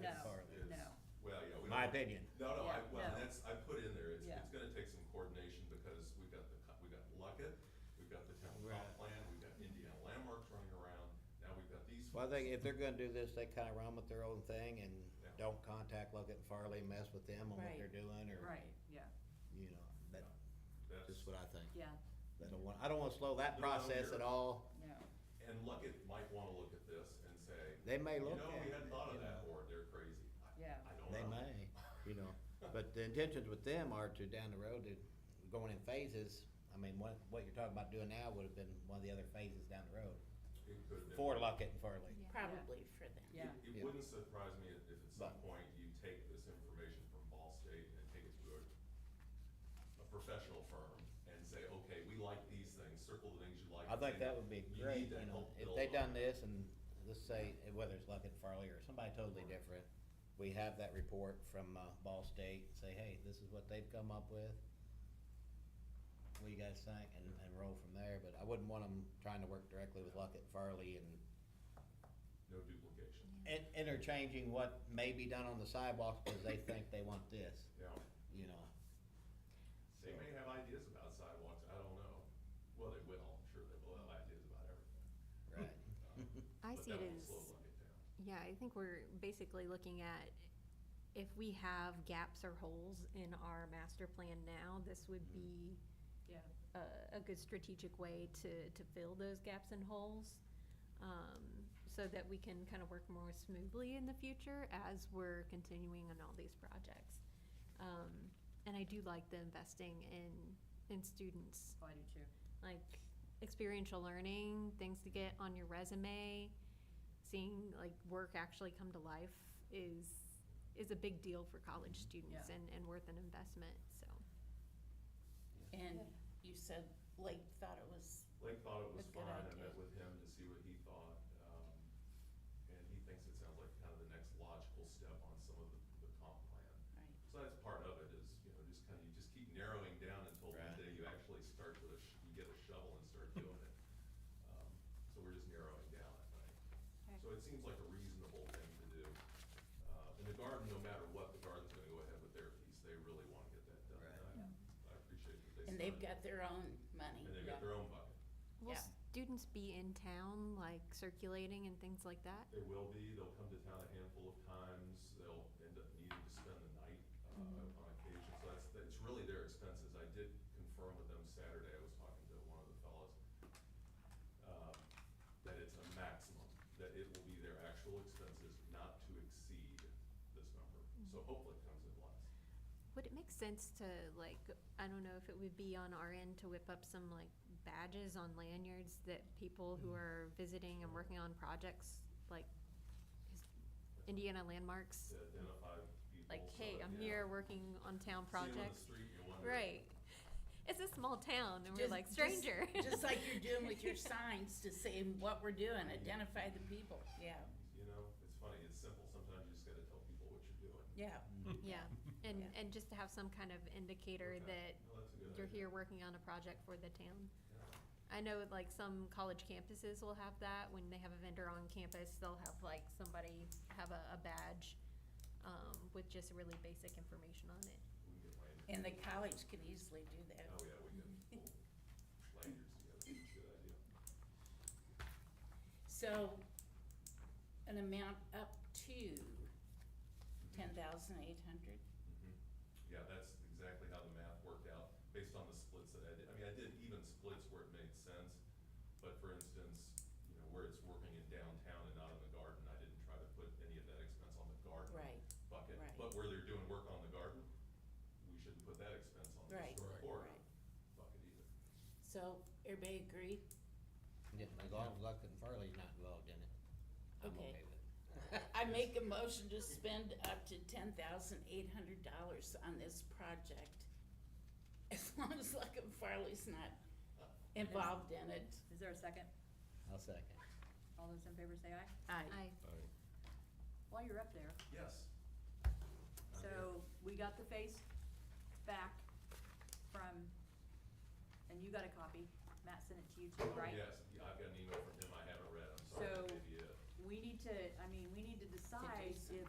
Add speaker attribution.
Speaker 1: necessarily.
Speaker 2: is-
Speaker 1: no.
Speaker 2: Well, yeah. we
Speaker 3: My
Speaker 2: don't-
Speaker 3: opinion.
Speaker 2: No, no, I,
Speaker 1: Yeah,
Speaker 2: well,
Speaker 1: no.
Speaker 2: that's, I put in there, it's,
Speaker 1: Yeah.
Speaker 2: it's gonna take some coordination because we've got the, co- we've got Luckett, we've got the town comp
Speaker 3: Right.
Speaker 2: plan, we've got Indiana landmarks running around, now we've got these.
Speaker 3: Well, I think
Speaker 2: folks.
Speaker 3: if they're gonna do this, they kinda run with their own thing and
Speaker 2: Yeah.
Speaker 3: don't contact Luckett and Farley, mess with them on what
Speaker 1: Right.
Speaker 3: they're doing or,
Speaker 1: Right, yeah,
Speaker 3: you know, that,
Speaker 2: That's-
Speaker 3: that's what I think.
Speaker 1: yeah,
Speaker 3: I don't want, I don't wanna slow that
Speaker 2: No, no,
Speaker 3: process
Speaker 2: you're-
Speaker 3: at all.
Speaker 1: no,
Speaker 2: And Luckett might wanna look at this and say.
Speaker 3: They may look
Speaker 2: You know,
Speaker 3: at
Speaker 2: we hadn't
Speaker 3: it,
Speaker 2: thought
Speaker 3: you
Speaker 2: of that,
Speaker 3: know.
Speaker 2: or they're crazy. I-
Speaker 1: Yeah.
Speaker 2: I don't know.
Speaker 3: They may, you know, but the intentions with them are to down the road to going in phases. I mean, what, what you're talking about doing now would have been one of the other phases down the road
Speaker 2: It could. have
Speaker 3: for
Speaker 2: been.
Speaker 3: Luckett and Farley.
Speaker 4: Probably for them.
Speaker 1: yeah,
Speaker 2: It, it
Speaker 3: Yeah.
Speaker 2: wouldn't surprise me if if at some
Speaker 3: But-
Speaker 2: point you take this information from Ball State and take it to a, a professional firm and say, okay, we like these things, circle the things you like.
Speaker 3: I think that would be
Speaker 2: You need
Speaker 3: great,
Speaker 2: that
Speaker 3: you know,
Speaker 2: help
Speaker 3: if
Speaker 2: build
Speaker 3: they
Speaker 2: on
Speaker 3: done
Speaker 2: it.
Speaker 3: this and let's say, whether it's Luckett and Farley or somebody totally different, we have that report from, uh, Ball State, say, hey, this is what they've come up with. What do you guys think? And, and roll from there, but I wouldn't want them trying to work directly with Luckett and Farley and
Speaker 2: No duplication.
Speaker 3: in- interchanging what may be done on the sidewalks because they think they want this,
Speaker 2: Yeah,
Speaker 3: you know.
Speaker 2: they may have ideas about sidewalks, I don't know. Well, they will, I'm sure they will have ideas about everything.
Speaker 3: Right.
Speaker 2: Um,
Speaker 5: I
Speaker 2: but
Speaker 5: see it
Speaker 2: that will
Speaker 5: as-
Speaker 2: slow Luckett down.
Speaker 5: Yeah, I think we're basically looking at if we have gaps or holes in our master plan now, this would be
Speaker 1: yeah.
Speaker 5: a, a good strategic way to, to fill those gaps and holes. um, So that we can kind of work more smoothly in the future as we're continuing on all these projects. Um, And I do like the investing in, in students
Speaker 1: oh, I do too.
Speaker 5: like experiential learning, things to get on your resume, seeing like work actually come to life is is a big deal for college students
Speaker 1: Yeah.
Speaker 5: and, and worth an investment. So
Speaker 4: And you said Lake thought it was,
Speaker 2: Lake thought it was
Speaker 4: A good
Speaker 2: fine, I
Speaker 4: idea.
Speaker 2: met with him to see what he thought, um, and he thinks it sounds like kind of the next logical step on some of the, the comp plan.
Speaker 4: right,
Speaker 2: So that's part of it is, you know, just kind of, you just keep narrowing down until one
Speaker 3: Right.
Speaker 2: day you actually start with a, sh- you get a shovel and start doing it. Um, So we're just narrowing down, I think. So it seems like a reasonable thing to do. Uh, And the garden, no matter what, the garden's gonna go ahead with their piece, they really wanna get that done.
Speaker 3: Right.
Speaker 2: And I- I appreciate that they.
Speaker 4: and they've
Speaker 2: started.
Speaker 4: got their own money.
Speaker 2: And they've got their own bucket.
Speaker 5: will
Speaker 4: Yeah.
Speaker 5: students be in town like circulating and things like that?
Speaker 2: They will be, they'll come to town a handful of times, they'll end up needing to spend the night uh,
Speaker 5: Mm-hmm.
Speaker 2: on occasion, so that's, that's really their expenses. I did confirm with them Saturday, I was talking to one of the fellows, uh, that it's a maximum, that it will be their actual expenses not to exceed this number.
Speaker 5: Mm-hmm.
Speaker 2: So hopefully it comes in less.
Speaker 5: Would it make sense to like, I don't know if it would be on our end to whip up some like badges on lanyards that people who are visiting and working on projects like is- Indiana landmarks?
Speaker 2: To identify people.
Speaker 5: like,
Speaker 2: so
Speaker 5: hey,
Speaker 2: that,
Speaker 5: I'm
Speaker 2: yeah.
Speaker 5: here working on town
Speaker 2: See 'em on the
Speaker 5: projects.
Speaker 2: street, you wonder-
Speaker 5: Right. It's a small town and we're
Speaker 4: Just-
Speaker 5: like
Speaker 4: just-
Speaker 5: stranger.
Speaker 4: Just like you're doing with your signs to say what we're doing, identify the people, yeah,
Speaker 2: You know, it's funny, it's simple, sometimes you just gotta tell people what you're doing.
Speaker 4: yeah.
Speaker 5: Yeah, and,
Speaker 4: Yeah.
Speaker 5: and just to have some kind of indicator that
Speaker 2: Okay. Well, that's a good
Speaker 5: you're
Speaker 2: idea.
Speaker 5: here working on a project for the town.
Speaker 2: Yeah.
Speaker 5: I know like some college campuses will have that, when they have a vendor on campus, they'll have like somebody have a, a badge, um, with just really basic information on it.
Speaker 2: We can get lanyards.
Speaker 4: And the college could easily do that.
Speaker 2: Oh, yeah, we can pull lanyards together, that's a good idea.
Speaker 4: So, an amount up to ten thousand eight hundred?
Speaker 2: Mhm. Yeah, that's exactly how the math worked out, based on the splits that I did. I mean, I did even splits where it made sense, but for instance, you know, where it's working in downtown and not in the garden, I didn't try to put any of that expense on the garden
Speaker 4: Right,
Speaker 2: bucket.
Speaker 4: right.
Speaker 2: But where they're doing work on the garden, we shouldn't put that expense on the
Speaker 4: Right,
Speaker 2: historic corridor
Speaker 4: right.
Speaker 2: bucket either.
Speaker 4: So, everybody agree?
Speaker 3: Yeah, As long as Luckett and Farley's not involved in it, I'm
Speaker 4: Okay.
Speaker 3: okay with it.
Speaker 4: I make a motion to spend up to ten thousand eight hundred dollars on this project, as long as Luckett Farley's not involved in it.
Speaker 1: Is there a second?
Speaker 3: I'll second.
Speaker 1: All those in favor say aye.
Speaker 5: I,
Speaker 1: While you're up there,
Speaker 2: Yes. I'm
Speaker 1: so we got the face back from, and you got a copy. Matt sent it to you too,
Speaker 2: Oh,
Speaker 1: right?
Speaker 2: Yes, Yeah, I've got an email from him I haven't read, I'm sorry,
Speaker 1: So-
Speaker 2: maybe it.
Speaker 1: We need to, I mean, we need to decide
Speaker 4: something.
Speaker 1: if